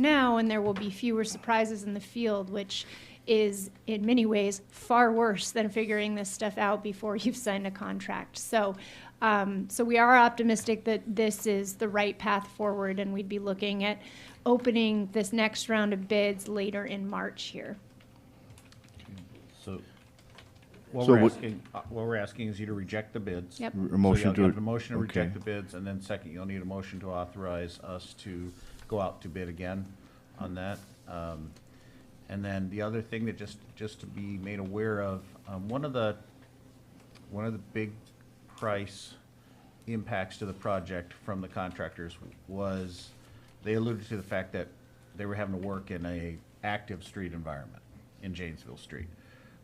now, and there will be fewer surprises in the field, which is in many ways far worse than figuring this stuff out before you've signed a contract. So, um, so we are optimistic that this is the right path forward, and we'd be looking at opening this next round of bids later in March here. So, what So we're what- asking, uh, what we're asking is you to reject the bids. Yep. A So you'll motion to. have a motion to reject okay. the bids, and then second, you'll need a motion to authorize us to go out to bid again on that. Um, And then the other thing that just, just to be made aware of, um, one of the, one of the big price impacts to the project from the contractors was, they alluded to the fact that they were having to work in a active street environment in Janesville Street.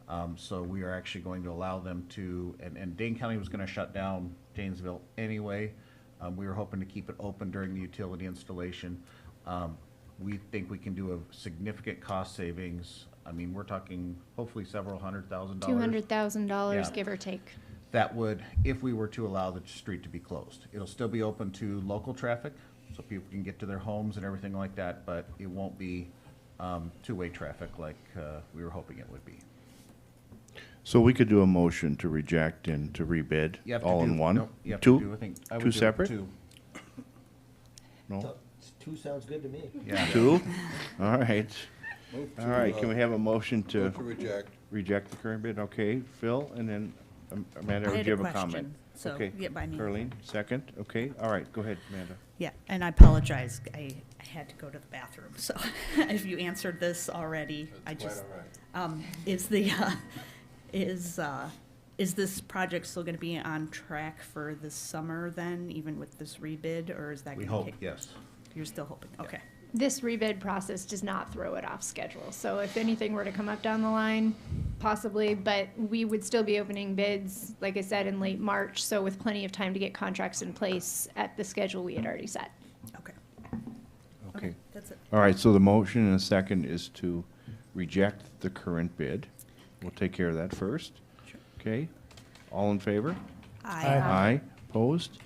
Um, so we are actually going to allow them to, and, and Dane County was gonna shut down Janesville anyway. Um, we were hoping to keep it open during the utility installation. Um, we think we can do a significant cost savings. I mean, we're talking hopefully several hundred thousand dollars. Two hundred thousand dollars, Yeah. give or take. that would, if we were to allow the street to be closed. It'll still be open to local traffic, so people can get to their homes and everything like that, but it won't be um, two-way traffic like uh, we were hoping it would be. So we could do a motion to reject and to rebid, You have to all do- in one? no, You have to Two? do, I think. I would Two do separate? Two, No? Two sounds good to me. yeah. Two? All right. Move All to, right, uh, can we have a motion to Move to reject. reject the current bid? Okay, Phil, and then um, Amanda, I would had you a have a comment? question, so Okay. get by me. Carleen, second? Okay, all right, go ahead, Amanda. Yeah, and I apologize, I, I had to go to the bathroom, so if you answered this already, I That's just. quite all right. Um, is the, uh, is, uh, is this project still gonna be on track for this summer then, even with this rebid, or is that We gonna? hope, take- yes. You're still hoping, okay. This rebid process does not throw it off schedule, so if anything were to come up down the line, possibly, but we would still be opening bids, like I said, in late March, so with plenty of time to get contracts in place at the schedule we had already set. Okay. Okay. That's it. All right, so the motion and a second is to reject the current bid. We'll take care of that first. Sure. Okay, all in favor? I, Aye, opposed?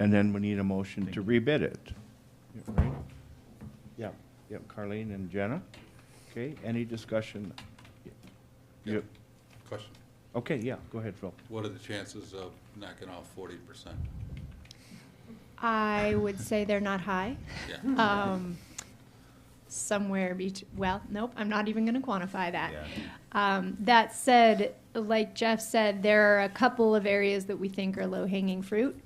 And then we need a motion to rebid it. Yeah, right? Yeah, yeah, Carleen and Jenna. Okay, any discussion? You- Question, Okay, yeah, go ahead, Phil. what are the chances of knocking off forty percent? I would say they're not high. Yeah. Um, somewhere bet, well, nope, I'm not even gonna quantify that. Yeah. Um, that said, like Jeff said, there are a couple of areas that we think are low-hanging fruit.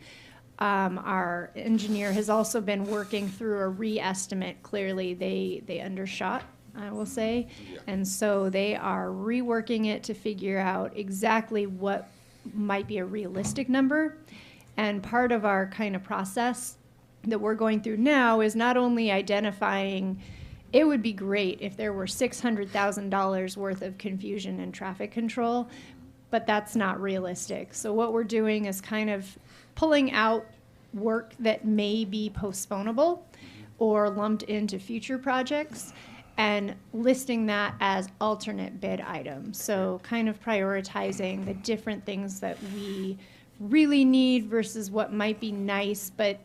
Um, our engineer has also been working through a re-estimate. Clearly, they, they undershot, I will say. Yeah. And so they are reworking it to figure out exactly what might be a realistic number. And part of our kind of process that we're going through now is not only identifying it would be great if there were $600,000 worth of confusion and traffic control, but that's not realistic. So, what we're doing is kind of pulling out work that may be postponable or lumped into future projects and listing that as alternate bid items. So, kind of prioritizing the different things that we really need versus what might be nice, but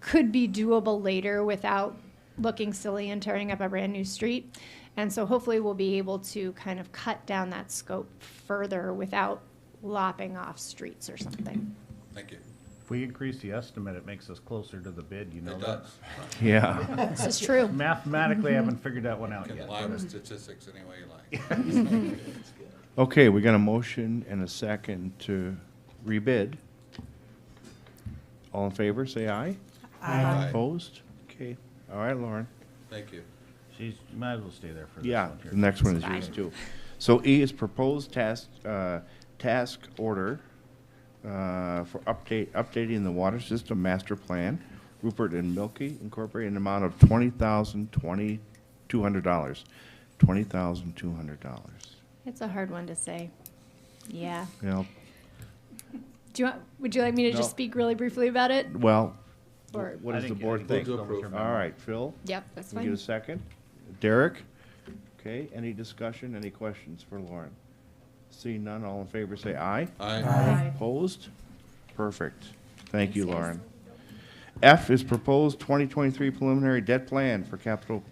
could be doable later without looking silly and tearing up a brand new street. And so hopefully we'll be able to kind of cut down that scope further without lopping off streets or something. Thank you. If we increase the estimate, it makes us closer to the bid, you know It that? does. Yeah. This is true. Mathematically, I haven't figured that one out Can yet. lie with statistics any way you like. Okay, we got a motion and a second to rebid. All in favor, say aye. Aye. Opposed? Okay, all right, Lauren. Thank you. She's, you might as well stay there for this Yeah, one here. the next one is yours too. So E is proposed task, uh, task order, uh, for update, updating the water system master plan, Rupert and Milky Incorporated, an amount of twenty thousand, twenty, two hundred dollars. Twenty thousand, two hundred dollars. It's a hard one to say. Yeah. Well, Do you want, would you like me to No. just speak really briefly about it? well, Or- what I does the think- I board think that's think? Move to the approve. long-term All right, Phil? Yep, that's Can we get fine. a second? Derek? Okay, any discussion, any questions for Lauren? Seeing none, all in favor, say aye. Aye. Opposed? Perfect. Thank you, Lauren. F is proposed 2023 preliminary debt plan for capital